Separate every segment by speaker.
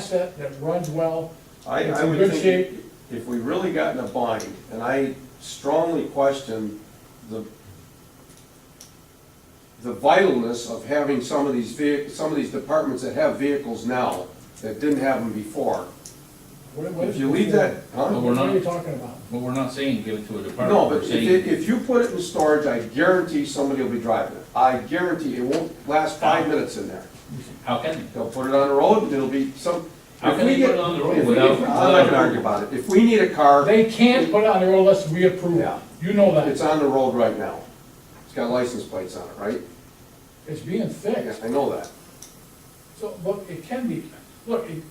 Speaker 1: asset that runs well.
Speaker 2: I,
Speaker 1: It's
Speaker 2: I
Speaker 1: in
Speaker 2: would
Speaker 1: good
Speaker 2: think
Speaker 1: shape.
Speaker 2: if we really got in a bind, and I strongly question the, the vitalness of having some of these vehi, some of these departments that have vehicles now that didn't have them before.
Speaker 1: What- what
Speaker 2: If
Speaker 1: is-
Speaker 2: you leave that,
Speaker 1: What
Speaker 2: huh?
Speaker 1: what are you talking about?
Speaker 3: But we're not saying give it to a department.
Speaker 2: No,
Speaker 3: We're
Speaker 2: but if,
Speaker 3: saying-
Speaker 2: it- if you put it in storage, I guarantee somebody will be driving it. I guarantee it won't last five minutes in there.
Speaker 3: How can,
Speaker 2: They'll put it on the road and it'll be some.
Speaker 3: How
Speaker 2: if
Speaker 3: can
Speaker 2: we
Speaker 3: they put
Speaker 2: get-
Speaker 3: it on the road
Speaker 2: if we-
Speaker 3: without-
Speaker 2: I'm not gonna argue about it. If we need a car.
Speaker 1: They can't put it on their own list, we approve it.
Speaker 2: Yeah.
Speaker 1: You know
Speaker 2: It's
Speaker 1: that.
Speaker 2: on the road right now. It's got license plates on it, right?
Speaker 1: It's being
Speaker 2: Yes,
Speaker 1: fixed.
Speaker 2: I know that.
Speaker 1: So, but it can be, look, it,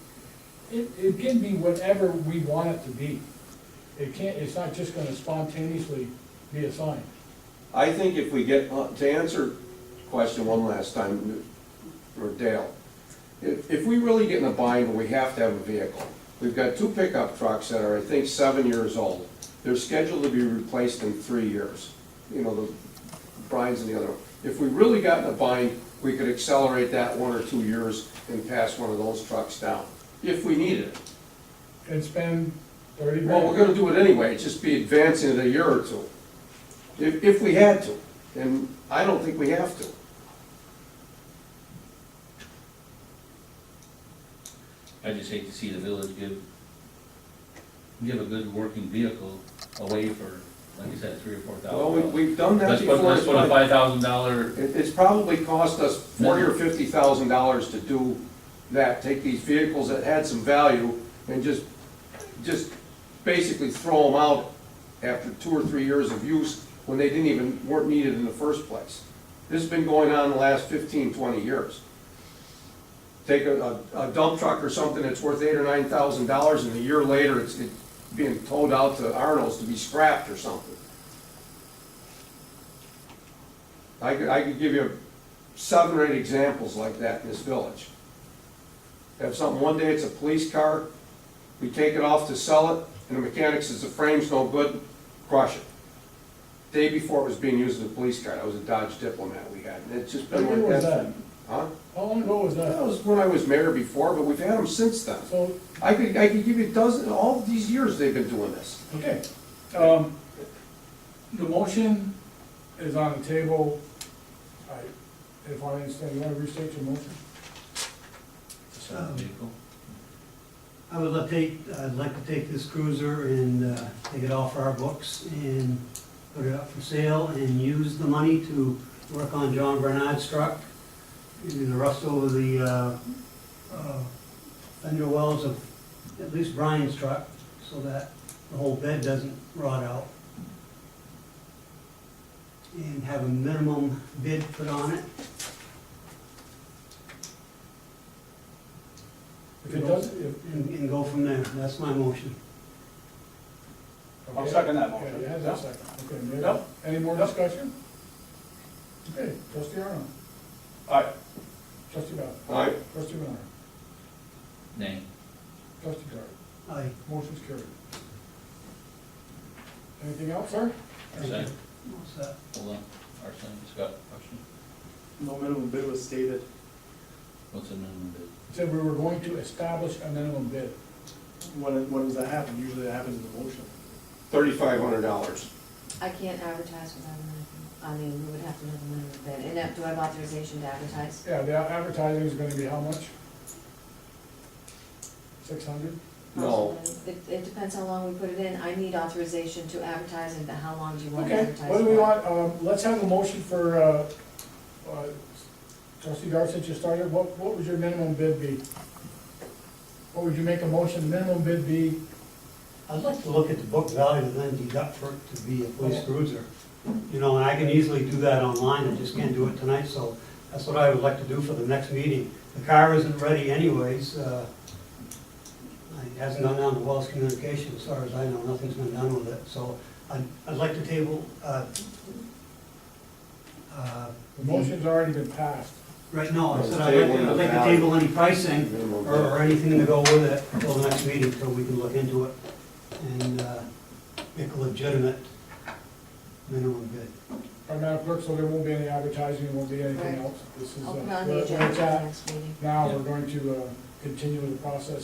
Speaker 1: it, it can be whatever we want it to be. It can't, it's not just gonna spontaneously be assigned.
Speaker 2: I think if we get, uh, to answer question one last time, or Dale, if, if we really get in a bind, we have to have a vehicle. We've got two pickup trucks that are, I think, seven years old. They're scheduled to be replaced in three years. You know, the Brian's and the other one. If we really got in a bind, we could accelerate that one or two years and pass one of those trucks down, if we needed it.
Speaker 1: And spend thirty
Speaker 2: Well, we're
Speaker 1: grand.
Speaker 2: gonna do it anyway, it's just be advancing it a year or two, if, if we had to, and I don't think we have to.
Speaker 3: I just hate to see the village give, give a good working vehicle away for, like you said, three or four
Speaker 2: Well, we,
Speaker 3: thousand
Speaker 2: we've
Speaker 3: dollars.
Speaker 2: done that
Speaker 3: Let's put,
Speaker 2: before.
Speaker 3: let's put a five thousand dollar,
Speaker 2: It, it's probably cost us forty or fifty thousand dollars to do that, take these vehicles that had some value and just, just basically throw them out after two or three years of use when they didn't even, weren't needed in the first place. This has been going on the last 15, 20 years. Take a, a a dump truck or something that's worth eight or nine thousand dollars and a year later it's it's being towed out to Arnold's to be scrapped or something. I could, I could give you seven or eight examples like that in this village. Have something, one day it's a police car, we take it off to sell it, and the mechanic says the frame's no good, crush it. Day before it was being used as a police car, that was a Dodge Diplomat we had, and it's just
Speaker 1: How
Speaker 2: been
Speaker 1: long
Speaker 2: like
Speaker 1: ago was
Speaker 2: that.
Speaker 1: that?
Speaker 2: Huh?
Speaker 1: How long ago was
Speaker 2: That
Speaker 1: that?
Speaker 2: was when I was mayor before, but we've had them since then.
Speaker 1: So,
Speaker 2: I could, I could give you a dozen, all these years they've been doing this.
Speaker 1: Okay, um, the motion is on the table. I, if I understand, you wanna restate your motion?
Speaker 3: vehicle.
Speaker 4: I would like to take, I'd like to take this cruiser and uh, take it off our books and put it up for sale and use the money to work on John Bernard's truck. And the rust over the uh, uh, fender wells of at least Brian's truck, so that the whole bed doesn't rot out. And have a minimum bid put on it.
Speaker 1: If it doesn't, if.
Speaker 4: And, and go from there. That's my motion.
Speaker 5: I'll second that
Speaker 1: Okay,
Speaker 5: motion.
Speaker 1: it has a second, okay, Mary,
Speaker 5: Yep.
Speaker 1: any more discussion? Okay, trustee Arnold,
Speaker 5: Aye.
Speaker 1: trustee Bowden,
Speaker 2: All right,
Speaker 1: trustee Miller,
Speaker 3: Nay.
Speaker 1: trustee Dart,
Speaker 4: Aye.
Speaker 1: motion's carried. Anything else, sir?
Speaker 3: Arson,
Speaker 4: What's that?
Speaker 3: hold on, Arson, just got a question.
Speaker 5: No minimum bid was stated.
Speaker 3: What's the minimum bid?
Speaker 1: Said we were going to establish a minimum bid.
Speaker 5: When, when does that happen? Usually that happens in the motion.
Speaker 2: thirty-five hundred dollars.
Speaker 6: I can't advertise without a minimum, I mean, we would have to know the minimum bid, and that, do I have authorization to advertise?
Speaker 1: Yeah, the advertising is gonna be how much? Six hundred?
Speaker 2: No.
Speaker 6: It, it depends how long we put it in, I need authorization to advertise, and how long do you want to
Speaker 1: Okay,
Speaker 6: advertise?
Speaker 1: what do we
Speaker 6: for?
Speaker 1: want, um, let's have a motion for, uh, uh, trustee Dart, since you started, what, what would your minimum bid be? What would you make a motion, minimum bid be,
Speaker 4: I'd like to look at the book value and then deduct for it to be a police cruiser. You know, and I can easily do that online, I just can't do it tonight, so that's what I would like to do for the next meeting. The car isn't ready anyways, uh, it hasn't gone down to Wells Communications, as far as I know, nothing's been done with it, so I'd, I'd like to table, uh, uh,
Speaker 1: the motion's already been passed.
Speaker 4: right now, I said I'd like to- I'd like to table any pricing or- or anything to go with it until the next meeting, until we can look into it and uh, make a legitimate minimum bid.
Speaker 1: Our Madam Clerk, so there won't be any advertising, there won't be anything
Speaker 6: Right.
Speaker 1: else, this is, uh,
Speaker 6: I'll put it on the
Speaker 1: where where
Speaker 6: agenda
Speaker 1: it's
Speaker 6: for the
Speaker 1: at.
Speaker 6: next meeting.
Speaker 1: Now, we're going to, uh, continue the process